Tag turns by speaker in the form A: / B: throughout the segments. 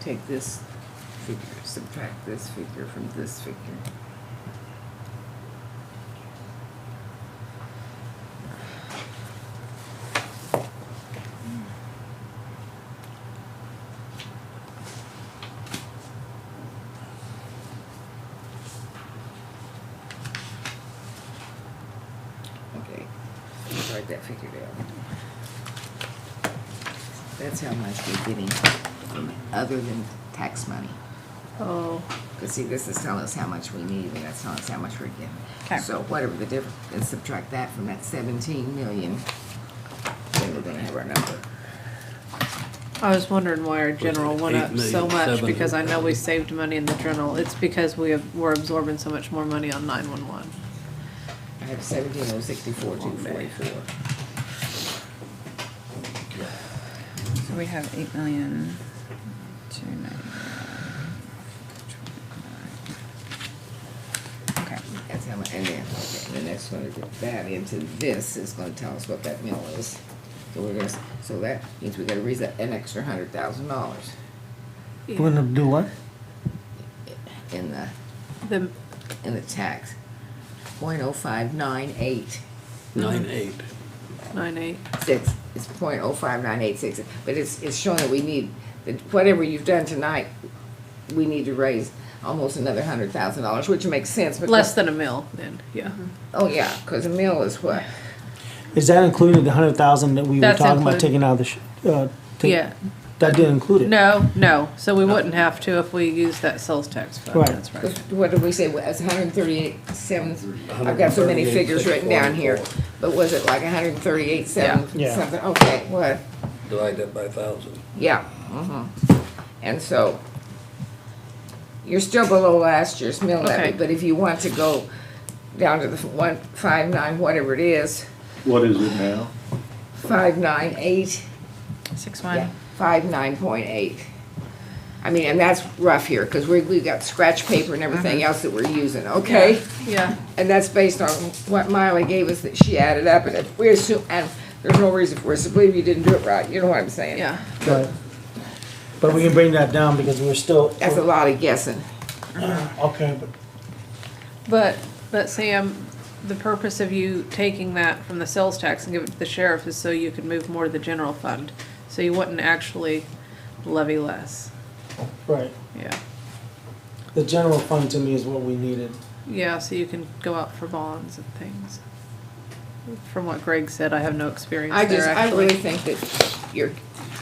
A: take this figure, subtract this figure from this figure. Okay, write that figure down. That's how much we're getting from other than tax money.
B: Oh,
A: Because see, this is telling us how much we need, and that's telling us how much we're getting.
B: Okay.
A: So whatever the difference, and subtract that from that seventeen million, then we're gonna have our number.
B: I was wondering why our general went
C: Eight
B: up so
C: million,
B: much,
C: seven
B: because I know we
C: hundred
B: saved money in the general. It's because we have, we're absorbing so much more money on nine-one-one.
A: I have seventeen oh sixty-four, two forty-four.
D: So we have eight million, two ninety. Okay,
A: That's how much, and then, okay, the next one to get that into this is gonna tell us what that mill is. So we're gonna, s- so that means we gotta raise that an extra hundred thousand dollars
E: We're gonna do what?
A: in the
B: The,
A: in the tax. Point oh five nine eight
C: Nine eight.
B: nine-eight,
A: six, it's point oh five nine eight six, but it's, it's showing that we need, that whatever you've done tonight, we need to raise almost another hundred thousand dollars, which makes sense, because.
B: less than a mil then, yeah.
E: Mm-hmm.
A: Oh, yeah, cause a mill is what,
E: Is that included, the hundred thousand that we were
B: That's
E: talking about
B: included.
E: taking out of the, sh- uh? take-
B: Yeah.
E: That didn't include it?
B: No, no, so we wouldn't have to if we used that sales tax fund,
E: Right.
B: that's right.
A: what did we say, it's hundred and thirty-eight seven, I've got so many figures written down here, but was it like hundred and thirty-eight seven,
E: Yeah. Yeah.
A: something, okay, what?
C: Divide that by thousand.
A: Yeah, mhm. And so, you're still below last year's mill levy,
B: Okay.
A: but if you want to go down to the one, five nine, whatever it is,
F: What is it now?
A: five nine eight,
D: six
A: yeah,
D: one,
A: five nine point eight. I mean, and that's rough here, cause we, we've got scratch paper and everything else that we're using, okay?
B: Uh-huh. Yeah,
A: And that's based on what Miley gave us that she added up, and if we assume, and there's no reason for us to believe you didn't do it right, you know what I'm saying?
B: yeah,
E: Right. But we can bring that down because we're still,
A: That's a lot of guessing.
E: okay, but
B: but, but Sam, the purpose of you taking that from the sales tax and give it to the sheriff is so you could move more to the general fund. So you wouldn't actually levy less,
E: Right.
B: yeah.
E: The general fund to me is what we needed.
B: Yeah, so you can go out for bonds and things. From what Greg said, I have no experience
A: I
B: there
A: just, I
B: actually.
A: really think that you're,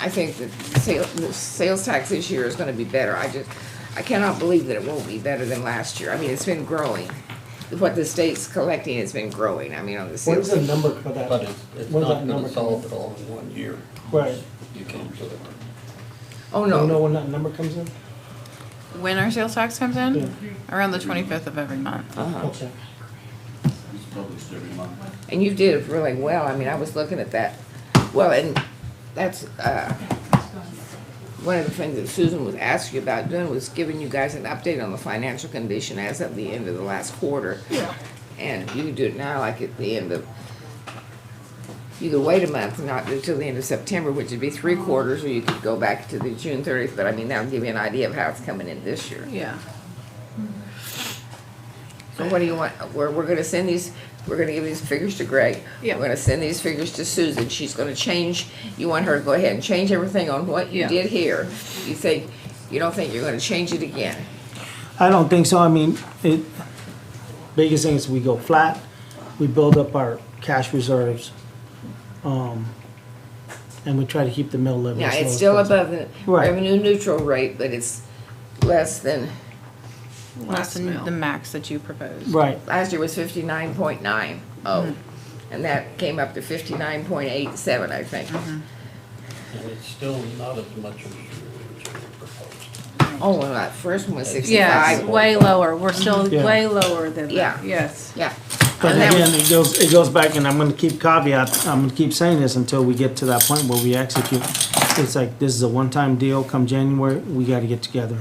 A: I think that sale, the sales tax this year is gonna be better, I just, I cannot believe that it won't be better than last year, I mean, it's been growing. What the state's collecting has been growing, I mean, on the
E: When's
A: sales.
E: the number for that?
C: But it's, it's
E: When's
C: not
E: that
C: gonna
E: number
C: solve it all in one year.
E: Right.
C: You can't do it.
A: Oh,
E: Do you know
A: no,
E: when that number comes in?
D: when our sales tax comes in?
E: Yeah.
D: Around the twenty-fifth of every month.
A: Uh-huh.
E: Okay.
F: It's published every month.
A: and you did really well, I mean, I was looking at that, well, and that's, uh, one of the things that Susan was asking you about doing was giving you guys an update on the financial condition as of the end of the last quarter. Yeah. And you do it now, like at the end of, you could wait a month, not until the end of September, which would be three quarters, or you could go back to the June thirtieth, but I mean, that'll give you an idea of how it's coming in this year.
B: Yeah,
A: So what do you want, we're, we're gonna send these, we're gonna give these figures to Greg.
B: Yeah.
A: We're gonna send these figures to Susan, she's gonna change, you want her to go ahead and change everything on what you
B: Yeah.
A: did here. You think, you don't think you're gonna change it again?
E: I don't think so. I mean, it, biggest thing is we go flat, we build up our cash reserves, um, and we try to keep the mill levy.
A: Yeah,
E: as low
A: it's
E: as
A: still
E: possible.
A: above the
E: Right.
A: revenue neutral rate, but it's less than,
D: Less
B: Last
D: than
B: mil.
D: the max that you proposed.
E: Right,
A: last year was fifty-nine point nine oh.
B: Mm-hmm.
A: And that came up to fifty-nine point eight seven, I think.
B: Mm-hmm.
C: And it's still not as much as you originally proposed.
A: Oh, well, that first one was
B: yeah, it's
A: sixty-five.
B: way lower, we're still
E: Yeah.
B: way lower than
A: Yeah.
B: that, yes.
A: Yeah.
E: but
A: And that
E: again,
A: was-
E: it goes, it goes back, and I'm gonna keep caveat, I'm gonna keep saying this until we get to that point where we execute. It's like, this is a one-time deal, come January, we gotta get together.